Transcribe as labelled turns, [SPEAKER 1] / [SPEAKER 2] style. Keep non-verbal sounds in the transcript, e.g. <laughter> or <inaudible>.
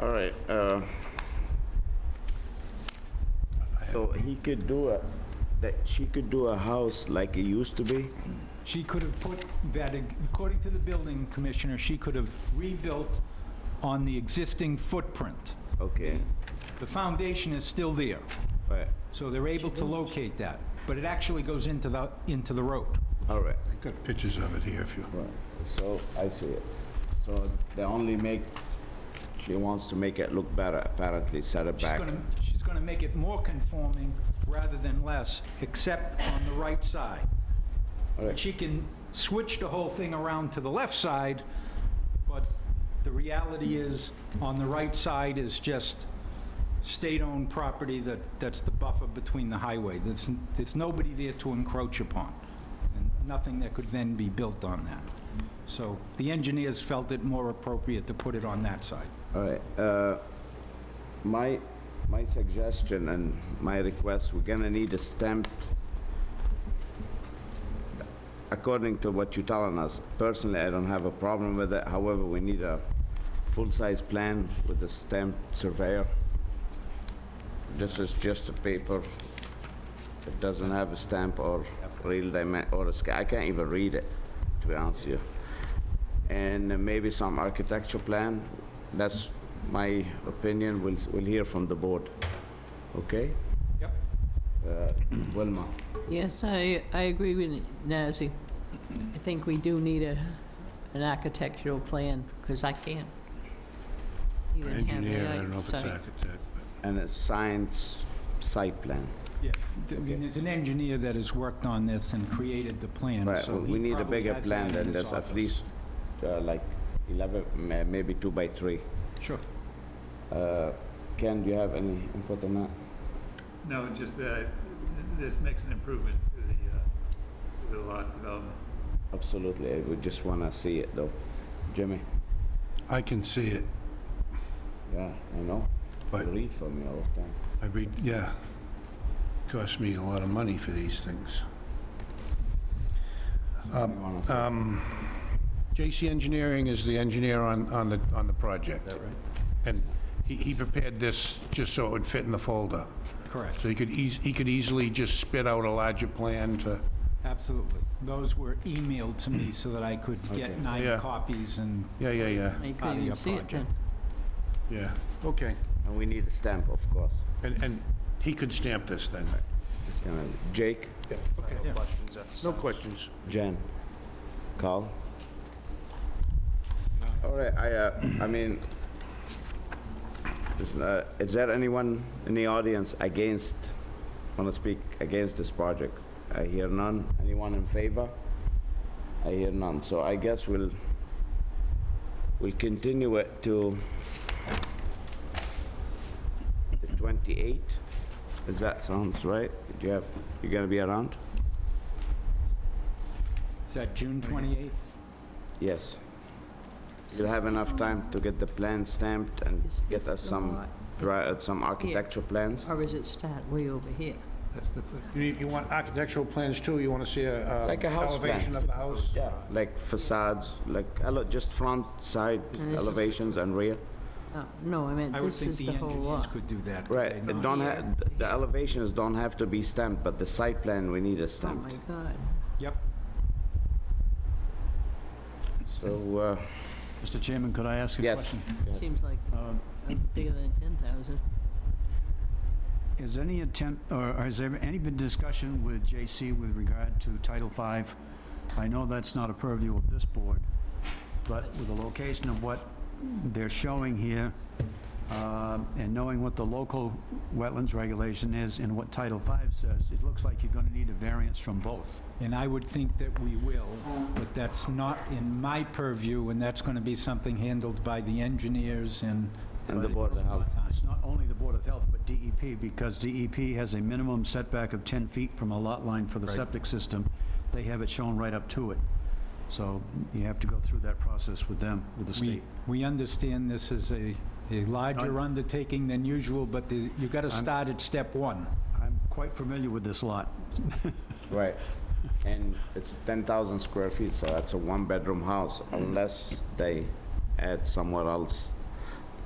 [SPEAKER 1] All right, uh, so he could do a, that, she could do a house like it used to be?
[SPEAKER 2] She could have put that, according to the building commissioner, she could have rebuilt on the existing footprint.
[SPEAKER 1] Okay,
[SPEAKER 2] The foundation is still there,
[SPEAKER 1] right,
[SPEAKER 2] so they're able to locate that, but it actually goes into the, into the road.
[SPEAKER 1] all right,
[SPEAKER 3] I've got pictures of it here if you,
[SPEAKER 1] right, so I see it. So they only make, she wants to make it look better, apparently, set it
[SPEAKER 2] She's
[SPEAKER 1] back.
[SPEAKER 2] gonna, she's gonna make it more conforming rather than less, except on the right side.
[SPEAKER 1] Alright.
[SPEAKER 2] She can switch the whole thing around to the left side, but the reality is, on the right side is just state-owned property that, that's the buffer between the highway. There's, there's nobody there to encroach upon, and nothing that could then be built on that. So the engineers felt it more appropriate to put it on that side.
[SPEAKER 1] All right, uh, my, my suggestion and my request, we're gonna need a stamp. According to what you're telling us, personally, I don't have a problem with it, however, we need a full-size plan with a stamped surveyor. This is just a paper, it doesn't have a stamp or real dimen, or a sca, I can't even read it, to be honest with you and uh, maybe some architecture plan. That's my opinion. We'll, we'll hear from the board. Okay? <clears throat>
[SPEAKER 2] Yep.
[SPEAKER 1] Wilma?
[SPEAKER 4] Yes, I, I agree with Nazzy. I think we do need a, an architectural plan, because I can't. even have the
[SPEAKER 3] engineer, I
[SPEAKER 4] right
[SPEAKER 3] don't know if it's
[SPEAKER 4] site.
[SPEAKER 3] architect, uh, but.
[SPEAKER 1] And a science site plan.
[SPEAKER 2] Yeah, th- I mean, there's an engineer that has worked on this and created the plan,
[SPEAKER 1] Right,
[SPEAKER 2] so
[SPEAKER 1] we
[SPEAKER 2] he
[SPEAKER 1] need a
[SPEAKER 2] probably
[SPEAKER 1] bigger
[SPEAKER 2] has
[SPEAKER 1] plan
[SPEAKER 2] that in
[SPEAKER 1] than
[SPEAKER 2] his
[SPEAKER 1] this, at
[SPEAKER 2] office.
[SPEAKER 1] least uh, like 11, ma- maybe two by three.
[SPEAKER 2] Sure.
[SPEAKER 1] Uh, Ken, do you have any input on that?
[SPEAKER 5] No, just that this makes an improvement to the, uh, to the lot development.
[SPEAKER 1] Absolutely. I would just want to see it, though. Jimmy?
[SPEAKER 3] I can see it,
[SPEAKER 1] Yeah, I know. You
[SPEAKER 3] but
[SPEAKER 1] read for me all the time.
[SPEAKER 3] I read, yeah. Cost me a lot of money for these things.
[SPEAKER 1] You wanna-
[SPEAKER 3] Um, JC Engineering is the engineer on, on the, on the project. And he, he prepared this just so it would fit in the folder.
[SPEAKER 2] Correct,
[SPEAKER 3] So he could eas, he could easily just spit out a larger plan to,
[SPEAKER 2] absolutely. Those were emailed to me so that I could
[SPEAKER 1] Okay.
[SPEAKER 2] get nine
[SPEAKER 3] Yeah.
[SPEAKER 2] copies and,
[SPEAKER 3] yeah, yeah, yeah,
[SPEAKER 4] I
[SPEAKER 2] Part of
[SPEAKER 4] couldn't even
[SPEAKER 2] your
[SPEAKER 4] see it then.
[SPEAKER 2] project.
[SPEAKER 3] yeah. Okay.
[SPEAKER 1] And we need a stamp, of course.
[SPEAKER 3] And, and he could stamp this then.
[SPEAKER 1] It's gonna- Jake?
[SPEAKER 3] No questions.
[SPEAKER 1] Jen, Carl? All right, I, uh, I mean, is, uh, is there anyone in the audience against, want to speak against this project? I hear none. Anyone in favor? I hear none. So I guess we'll, we'll continue it to the 28th. Does that sounds right? Do you have, you gonna be around?
[SPEAKER 2] is that June 28th?
[SPEAKER 1] Yes. You'll have enough time to get the plan stamped and
[SPEAKER 4] Is
[SPEAKER 1] get
[SPEAKER 4] this
[SPEAKER 1] us
[SPEAKER 4] the
[SPEAKER 1] some,
[SPEAKER 4] lot?
[SPEAKER 1] dra- uh, some architecture plans?
[SPEAKER 4] Or is it start way over here?
[SPEAKER 3] You, you want architectural plans too? You want to see a, uh,
[SPEAKER 1] Like a house plan.
[SPEAKER 3] elevation of the house?
[SPEAKER 1] Yeah. Like facades, like ele- just front, side
[SPEAKER 4] this-
[SPEAKER 1] elevations and rear?
[SPEAKER 4] No, Uh, No, I meant
[SPEAKER 2] I would
[SPEAKER 4] this
[SPEAKER 2] think
[SPEAKER 4] is
[SPEAKER 2] the
[SPEAKER 4] the whole
[SPEAKER 2] engineers
[SPEAKER 4] lot.
[SPEAKER 2] could do that. could
[SPEAKER 1] Right,
[SPEAKER 2] they
[SPEAKER 1] it
[SPEAKER 2] not?
[SPEAKER 1] don't have, the elevations don't have to be stamped, but the site plan, we need a
[SPEAKER 4] Oh, my
[SPEAKER 1] stamped.
[SPEAKER 4] God.
[SPEAKER 2] Yep,
[SPEAKER 1] So, uh,
[SPEAKER 6] Mr. Chairman, could I ask a
[SPEAKER 1] Yes.
[SPEAKER 6] question?
[SPEAKER 4] Seems like
[SPEAKER 6] Um,
[SPEAKER 4] uh, bigger than 10,000.
[SPEAKER 6] Is any attempt, or or has there any been discussion with J.C. with regard to Title V? I know that's not a purview of this board, but with the location of what they're showing here, um, and knowing what the local wetlands regulation is and what Title V says, it looks like you're going to need a variance from both.
[SPEAKER 2] and I would think that we will, but that's not in my purview, and that's going to be something handled by the engineers and...
[SPEAKER 1] and the Board of Health.
[SPEAKER 6] It's not only the Board of Health, but DEP, because DEP has a minimum setback of 10 feet from a lot line for the septic system. They have it shown right up to it. So you have to go through that process with them, with the
[SPEAKER 2] We,
[SPEAKER 6] state.
[SPEAKER 2] we understand this is a, a larger undertaking than usual, but the- you got to start at step one.
[SPEAKER 6] I'm quite familiar with this lot.
[SPEAKER 1] Right. And it's 10,000 square feet, so that's a one-bedroom house, unless they add somewhere else